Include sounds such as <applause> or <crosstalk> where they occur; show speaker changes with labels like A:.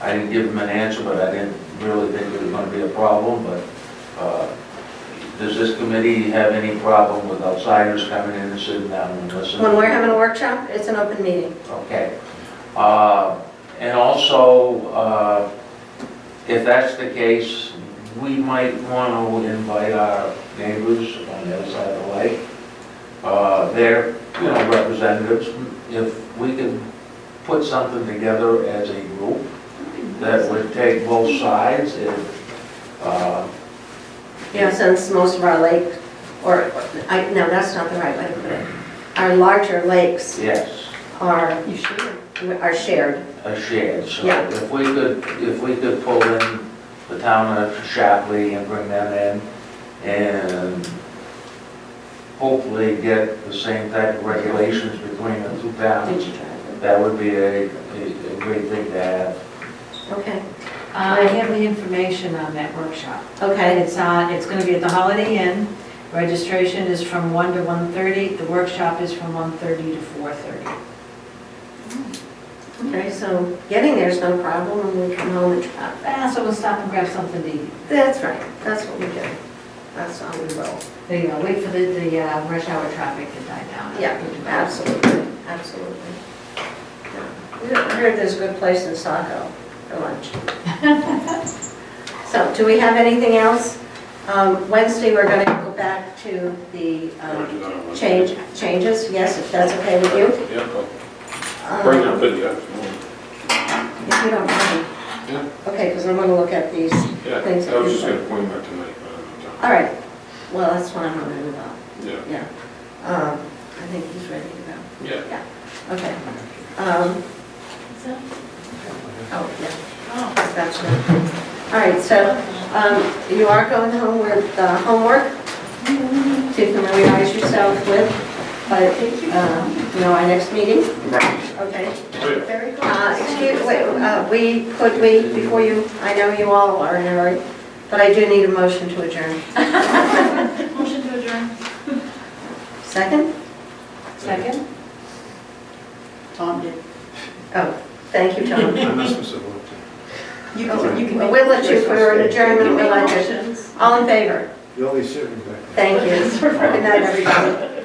A: I didn't give him an answer, but I didn't really think it was gonna be a problem, but, uh, does this committee have any problem with outsiders coming in and sitting down and listening?
B: When we're having a workshop, it's an open meeting.
A: Okay. Uh, And also, uh, if that's the case, we might want to invite our neighbors on the other side of the lake, uh, their, you know, representatives, if we can put something together as a group that would take both sides, if, uh,
B: You know, since most of our lake, or, I, no, that's not the right way to put it. Our larger lakes
A: yes,
B: are,
C: You should.
B: are shared.
A: a shared. So
B: Yeah.
A: if we could, if we could pull in the town of Shapley and bring them in and hopefully get the same type of regulations between the two towns,
B: Did you try
A: that would be a, a a great thing to have.
B: it? Okay,
C: I have the information on that workshop. And
B: okay,
C: it's on, it's gonna be at the Holiday Inn. Registration is from one to one thirty. The workshop is from one thirty to four thirty.
B: okay, so getting there's no problem when we come home and try.
C: Ah, so we'll stop and grab something to eat.
B: That's right, that's what we do. That's how we roll.
C: There you go, wait for the, the uh, rush hour traffic to die down.
B: Yeah, absolutely, absolutely. Yeah. I heard there's a good place in Saco for lunch. So, do we have anything else? Um, Wednesday, we're going to go back to the um, change, changes, yes, if that's okay with you?
D: Yeah, well,
B: Um,
D: bring your video.
B: If you don't mind.
D: Yeah.
B: Okay, because I'm going to look at these.
D: Yeah,
B: Thanks,
D: I was just
B: everybody.
D: gonna point out tonight, but I don't
B: All right, well, that's what I'm going to do about,
D: know. Yeah,
B: yeah. Um, I think he's ready to go.
D: yeah.
B: Okay. Um, Oh, yeah, that's right. All right, so um, you are going home with uh, homework to familiarize yourself with, but, uh, you know, our next meeting. Okay.
D: Wait,
C: Very
B: Uh, Excuse, wait, uh, we, could we, before you, I know you all are in a hurry, but I do need a motion to adjourn.
E: Motion to adjourn.
B: Second?
C: Second?
E: Tom did.
B: Oh, thank you, Tom.
D: I'm not supposed to look.
E: You
B: can-
E: you
B: Well, We'll let <laughs> you for an adjournment, we'll let you.
E: motions.
B: All in favor?
F: The only certain.
B: Thank you. Good night, everybody.